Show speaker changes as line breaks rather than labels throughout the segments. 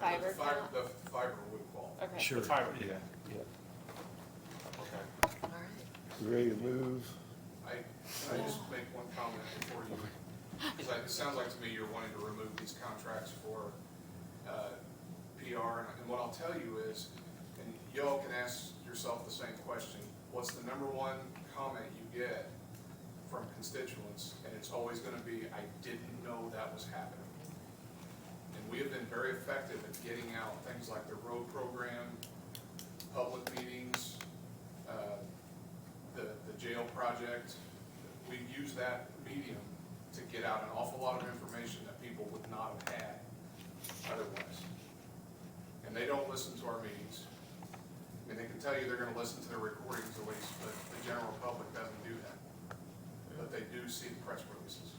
fiber
Fiber,
count?
the fiber would qualify.
Okay.
Sure.
The fiber.
Yeah, yeah.
Okay.
All right.
You Ready to move?
I, can I just make one comment before you? Because it sounds like to me you're wanting to remove these contracts for uh, PR. And and what I'll tell you is, and y'all can ask yourself the same question, what's the number one comment you get from constituents? And it's always going to be, I didn't know that was happening. And we have been very effective at getting out things like the road program, public meetings, uh, the, the jail project, we use that medium to get out an awful lot of information that people would not have had otherwise. And they don't listen to our meetings. I mean, they can tell you they're gonna listen to the recordings at least, but the general public doesn't do that. But they do see the press releases.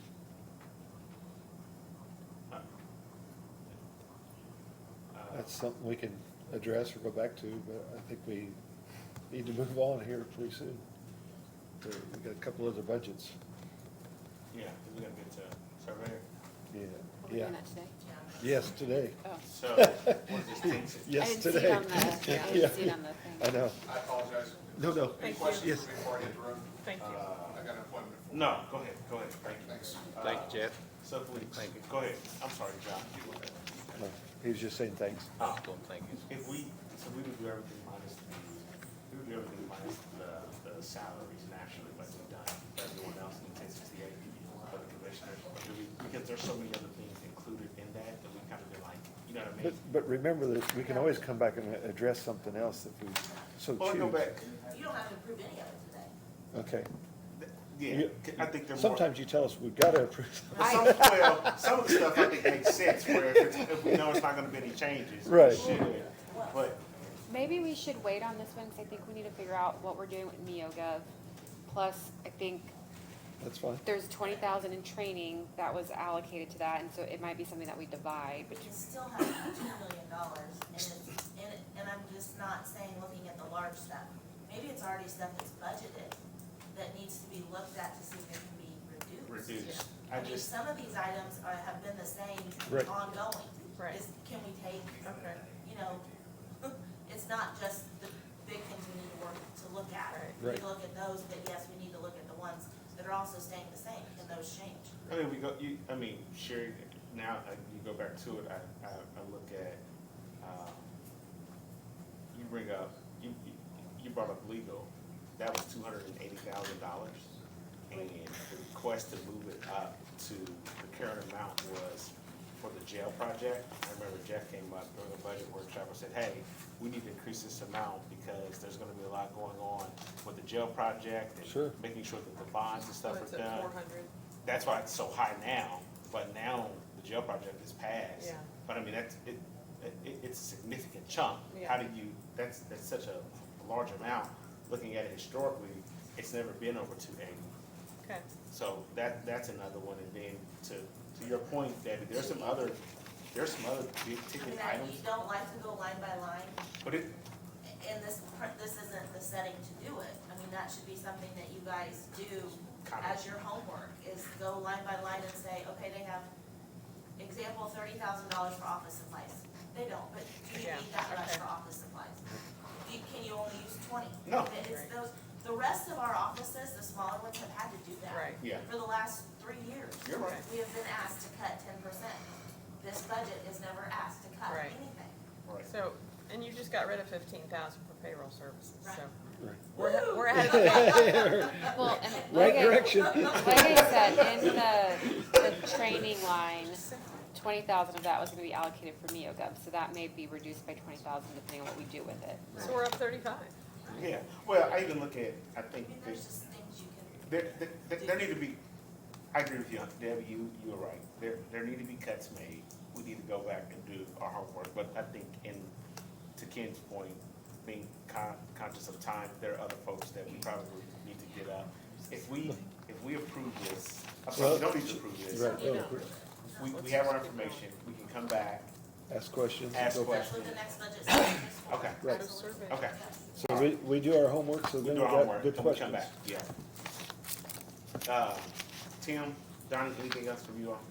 Uh,
That's something we can address or go back to, but I think we need to move on here pretty soon. There- We got a couple other budgets.
Yeah, 'cause we gotta get to surveyor.
Yeah,
We're
yeah.
doing that today?
Yes, today.
Oh.
So, what is this thing?
Yes, today.
I didn't see it on the, yeah, I
Yeah.
didn't see it on the
I
thing.
know.
I apologize.
No, no.
Any
Thank you.
questions
Yes.
for me before I interrupt?
Thank you.
I
Uh,
got an appointment. for-
No, go ahead, go ahead, thank you.
Thanks.
Thank
Uh,
you, Jeff.
So please,
Thank you.
go ahead, I'm sorry, John.
No, He was just saying thanks.
Oh, thank you.
If we, so we would do everything minus the, we would do everything minus the, the salaries naturally, like we've done, for everyone else in ten sixty-eight, for the commissioners. But do we- Because there's so many other things included in that, that we kind of been like, you know what I
But,
mean?
but remember that we can always come back and address something else if we so
Or
choose.
go back,
You don't have to approve any of it today.
Okay.
yeah,
You-
I think they're more.
Sometimes you tell us we've got to approve.
But some, well, some of the stuff I think makes sense where if, it's, if we know it's not going to be any changes. we
Right.
shouldn't. But
Maybe we should wait on this one, because I think we need to figure out what we're doing with NeoGov. Plus, I think
That's fine.
there's twenty thousand in training that was allocated to that, and so it might be something that we divide,
We
but
can still have two million dollars and it's, and, it- and I'm just not saying looking at the large stuff. Maybe it's already stuff that's budgeted that needs to be looked at to see if it can be reduced.
reduce. I
I mean,
just,
some of these items are, have been the same
Right.
ongoing.
Right.
Is- Can we take,
Okay.
you know, it's not just the big things we need to work, to look at. We need
Right.
to look at those, but yes, we need to look at the ones that are also staying the same. Can those change?
I mean, we go. You, I mean, Sherry. Now I, you go back to it. I, I, I look at. Um, you bring up. You, you you brought up legal. That was two hundred and eighty thousand dollars, and the request to move it up to the current amount was for the jail project. I remember Jeff came up during the budget workshop and said, "Hey, we need to increase this amount because there's going to be a lot going on with the jail project and
Sure.
making sure that the bonds and stuff
When it's
are
at
done."
400.
that's why it's so high now, but now the jail project is passed.
Yeah.
But I mean, that's, it, it, it's a significant chunk.
Yeah.
How do you, that's, that's such a large amount, looking at it historically, it's never been over two eighty.
Okay.
So that, that's another one, and then to, to your point, Debbie, there's some other, there's some other big
I mean,
ticket
I, you
items,
don't like to go line by line,
but it,
and this, per- this isn't the setting to do it. I mean, that should be something that you guys do as your homework, is go line by line and say, okay, they have, example, thirty thousand dollars for office supplies. They don't, but do you
Yeah,
need that much
okay.
for office supplies? Do you- Can you only use twenty?
No.
It's those, the rest of our offices, the smaller ones have had to do that.
Right.
yeah,
For the last three years.
you're right.
We have been asked to cut ten percent. This budget is never asked to cut
Right.
anything.
Right.
So, and you just got rid of fifteen thousand for payroll services, so
Right.
we're, ahe- we're ahead of the game.
Well, and
Right
like I,
direction.
like I said, in the, the training line, twenty thousand of that was gonna be allocated for NeoGov, so that may be reduced by twenty thousand depending on what we do with it.
So we're up thirty-five.
Yeah, well, I even look at, I
I
think
mean,
there's
there's just things you can.
There, there- there, there need to be, I agree with you, Debbie, you, you were right. There, there need to be cuts made. We need to go back and do our homework, but I think in, to Ken's point, being con- conscious of time, there are other folks that we probably need to get up. If we, if we approve this, I'm sorry, we don't need to approve this.
Right, no,
We, we have our information, we can come back.
Ask questions.
Ask
go back.
That's what the next budget session is for.
Okay.
Right.
Absolutely.
Survey.
Okay,
Yes.
So we, we do our homework, so
we
then we
do our
got
homework,
good
and we come
questions.
back, yeah. Uh, Tim, Donnie, anything else from you all?